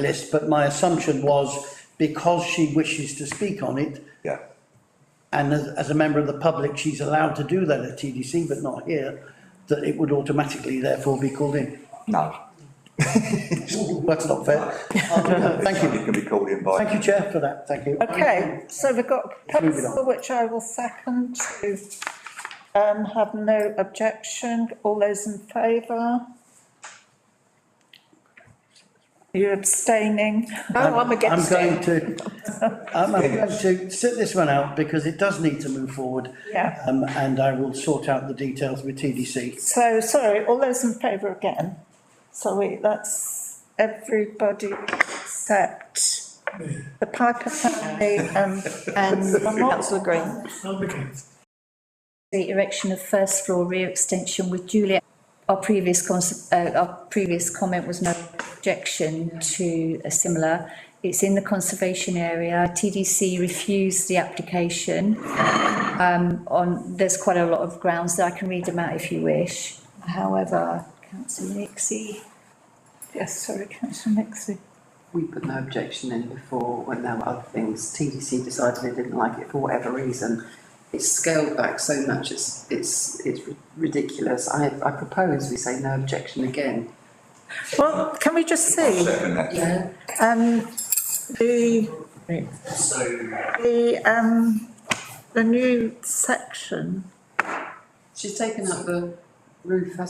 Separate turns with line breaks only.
list, but my assumption was because she wishes to speak on it,
Yeah,
and as, as a member of the public, she's allowed to do that at TDC, but not here, that it would automatically therefore be called in.
no.
That's not fair. Thank you.
It can be called in by.
Thank you, Chair, for that. Thank you.
Okay, so we've got a
Let's move it
proposal which I will second to, um, have no objection. All those in favour? You're abstaining?
No, I'm
I'm
against
going
it.
to, I'm I'm going to sit this one out because it does need to move forward.
Yeah.
Um, and I will sort out the details with TDC.
So, sorry, all those in favour again? Sorry, that's everybody except the Piper family and,
And councillor Green,
the erection of first floor rear extension with Juliet. Our previous cons- uh, our previous comment was no objection to a similar. It's in the conservation area. TDC refused the application. Um, on, there's quite a lot of grounds that I can read them out if you wish. However, councillor Nixie.
yes, sorry, councillor Nixie.
We put no objection in before when there were other things. TDC decided they didn't like it for whatever reason. It's scaled back so much, it's, it's, it's ridiculous. I, I propose we say no objection again.
Well, can we just see,
Second that.
Yeah.
um, the
So,
The, um, the new section
She's taken up the roof, hasn't